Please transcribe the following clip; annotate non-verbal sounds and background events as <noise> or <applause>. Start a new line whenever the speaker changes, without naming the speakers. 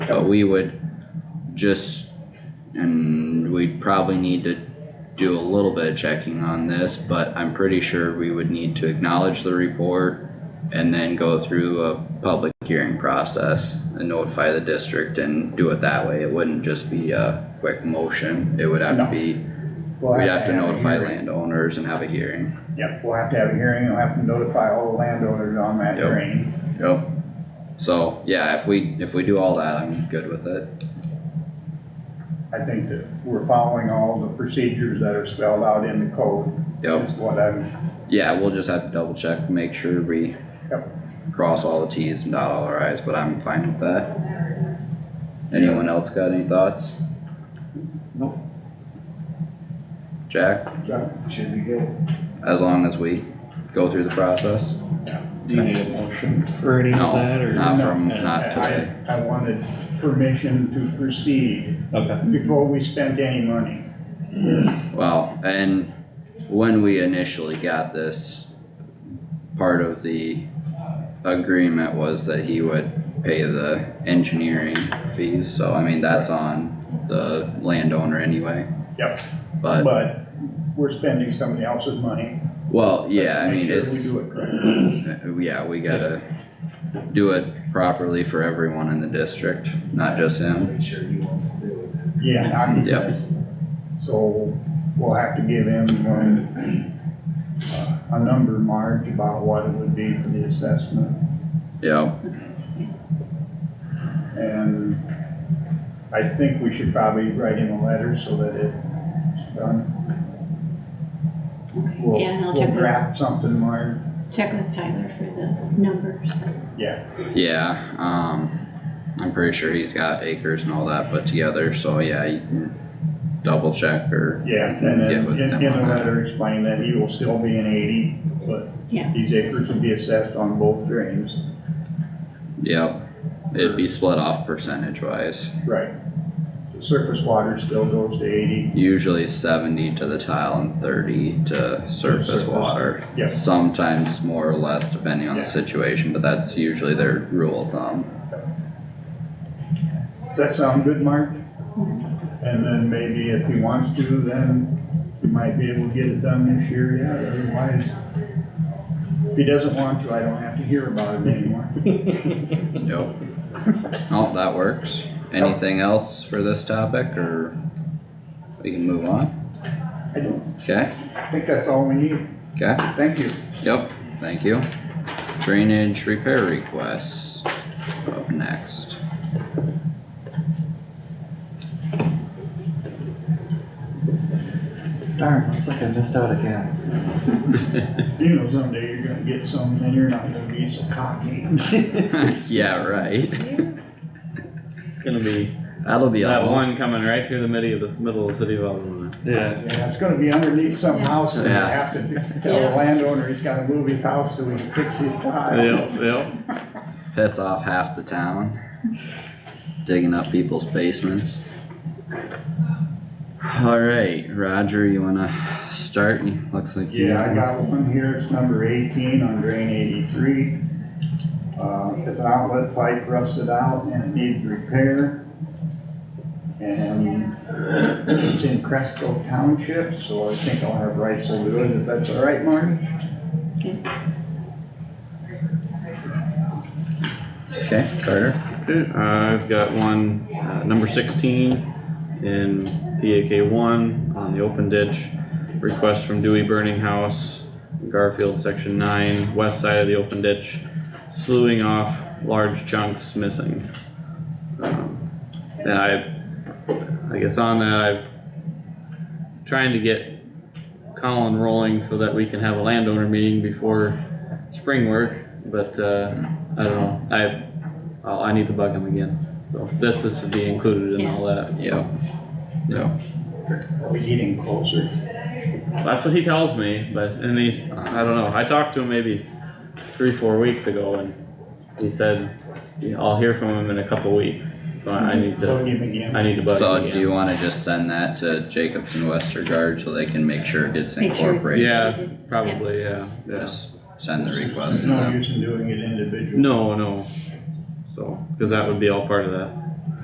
but we would just, and we'd probably need to do a little bit of checking on this, but I'm pretty sure we would need to acknowledge the report and then go through a public hearing process and notify the district and do it that way. It wouldn't just be a quick motion, it would have to
No.
be,
We'll
we'd have to
a
notify
hearing.
landowners and have a hearing.
Yep, we'll have to have a hearing, we'll have to notify all the landowners on that
Yep.
drain.
Yep. So, yeah, if we, if we do all that, I'm good with it.
I think that we're following all the procedures that are spelled out in the code.
Yep,
Is what I'm,
yeah, we'll just have to double check, make sure we
Yep.
cross all the Ts and dot all our Is, but I'm fine with that. Anyone else got any thoughts?
Nope.
Jack,
Should be good.
as long as we go through the process?
Do you need a motion for any of
No,
that or?
not from,
No.
not today.
I, I wanted permission to proceed
Okay,
before we spent any money.
Well, and when we initially got this, part of the agreement was that he would pay the engineering fees, so I mean, that's on the landowner anyway.
Yep.
But,
But we're spending somebody else's money.
well, yeah, I
Make
mean,
sure we
it's,
do it correctly.
uh, yeah, we gotta do it properly for everyone in the district, not just him.
Make sure he wants to do it.
Yeah, I'm-
Yep.
so we'll have to give him, um, uh, a number, Marge, about what it would be for the assessment.
Yeah,
And I think we should probably write him a letter so that it's done. We'll,
Yeah, and I'll
we'll
check with-
draft something, Marge.
Check with Tyler for the numbers.
yeah, um, I'm pretty sure he's got acres and all that put together, so yeah, you can double check or
Yeah, and
Yeah,
then
with
in,
them
in
on
the
that.
letter, explain that he will still be an eighty, but
Yeah.
these acres will be assessed on both drains.
Yep, it'd be split off percentage wise,
Right. The surface water still goes to eighty,
usually seventy to the tile and thirty to surface
surface.
water.
Yep.
Sometimes more or less depending on the
Yeah.
situation, but that's usually their rule of thumb.
does that sound good, Marge? And then maybe if he wants to, then he might be able to get it done this year yet, otherwise. If he doesn't want to, I don't have to hear about it anymore.
Yep. <laughs> Oh, that works. Anything else for this topic or we can move on?
I don't,
Okay,
I think that's all we need,
okay,
thank you.
yep, thank you. Drainage repair requests up next. <laughs>
darn, looks like I missed out again.
You know someday you're gonna get some, and you're not gonna be so cocky. <laughs>
Yeah, right.
It's gonna be
That'll be a
that
long
one coming right through the middle of the middle of the city of Algonquin.
Yeah.
Yeah, it's gonna be underneath some house, and you
Yeah.
have to tell the landowner he's gotta move his house so we can fix his tile.
yep.
piss off half the town. Digging up people's basements. Alright, Roger, you wanna start? You- Looks like you.
Yeah, I got one here, it's number eighteen on drain eighty-three. Uh, it's an outlet pipe rusted out and it needs repair. And it's in Cresco Township, so I think I'll have rights to do it, if that's all right, Marty?
Okay, Carter.
Okay, I've got one, uh, number sixteen in PAK one on the open ditch. Request from Dewey Burning House, Garfield, section nine, west side of the open ditch, slewing off large chunks missing. Um, And I, I guess on that, I've trying to get Colin rolling so that we can have a landowner meeting before spring work, but, uh, I don't know, I Oh, I need to bug him again, so this, this would be included in all that.
Yep. Yep.
Are we getting closer?
That's what he tells me, but, and he, I don't know, I talked to him maybe three, four weeks ago and he said, "Yeah, I'll hear from him in a couple weeks, so I I need to,
Plug him again.
I need to bug
So
him
do
again.
you wanna just send that to Jacobs and Westergaard so they can make sure it gets
Make sure it's-
incorporated?
Yeah, probably, yeah, yeah.
Just send the request to
There's No
them.
use in doing it individually.
No, no, so, cause that would be all part of that.